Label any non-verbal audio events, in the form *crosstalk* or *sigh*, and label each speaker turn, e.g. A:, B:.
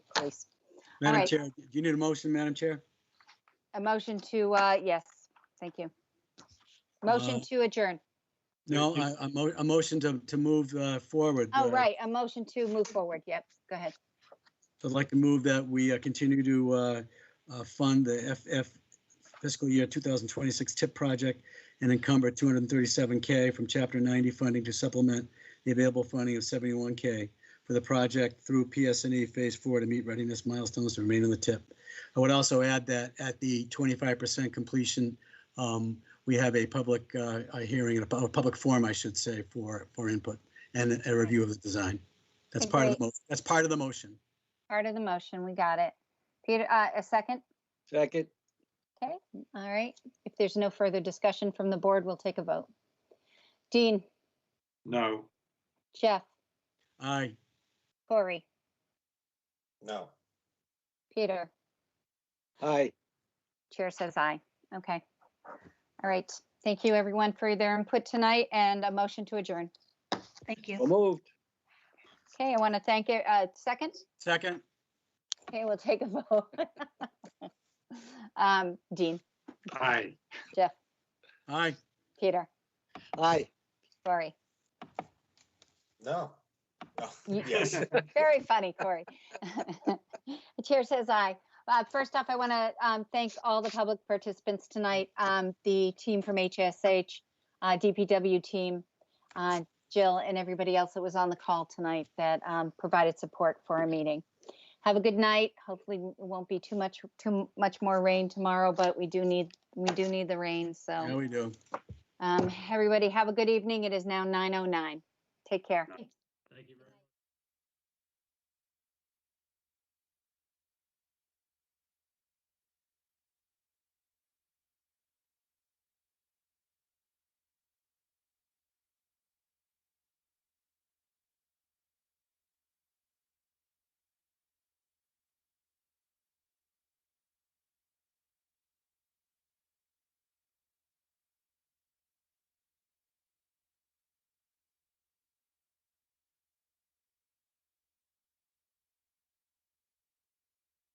A: please.
B: Madam
A: right.
B: Chair, do you need a motion, Madam Chair?
A: A motion to, uh, yes, thank you. Motion
B: Uh,
A: to adjourn.
B: No,
C: you-
B: a, a mo- a motion to, to move uh, forward.
A: Oh,
B: uh,
A: right, a motion to move forward. Yep, go ahead.
B: I'd like to move that we uh, continue to uh, uh, fund the FF fiscal year 2026 TIP project and encumber 237K from Chapter 90 funding to supplement the available funding of 71K for the project through PSNE E Phase 4 to meet readiness milestones to remain on the TIP. I would also add that at the 25% completion, um, we have a public uh, a hearing, a pu- a public forum, I should say, for, for input and a review of the design. That's part of the, mo- that's part of the motion.
A: Part of the motion, we got it. Peter, uh, a second?
C: Second,
A: Okay, all right. If there's no further discussion from the board, we'll take a vote. Dean,
D: No.
A: Jeff,
B: Aye.
A: Corey,
E: No.
A: Peter,
C: aye.
A: chair says aye. Okay. All right, thank you everyone for their input tonight and a motion to adjourn. Thank you.
C: So moved.
A: Okay, I want to thank you. Uh, second?
B: Second?
A: Okay, we'll take a vote. *laughs* Um, Dean,
D: Aye.
B: Aye.
A: Peter,
C: Aye.
A: Corey.
E: No. No.
A: You-
E: Yes.
A: *laughs* Very funny, Corey. The chair says aye. Uh, First off, I want to thank all the public participants tonight, um, the team from HSH, uh, DPW team, uh, Jill, and everybody else that was on the call tonight that um, provided support for our meeting. Have a good night. Hopefully, it won't be too much, too much more rain tomorrow, but we do need, we do need the rain,
B: Yeah,
A: so.
B: we do.
A: um, Everybody, have a good evening. It is now 9:09. Take care.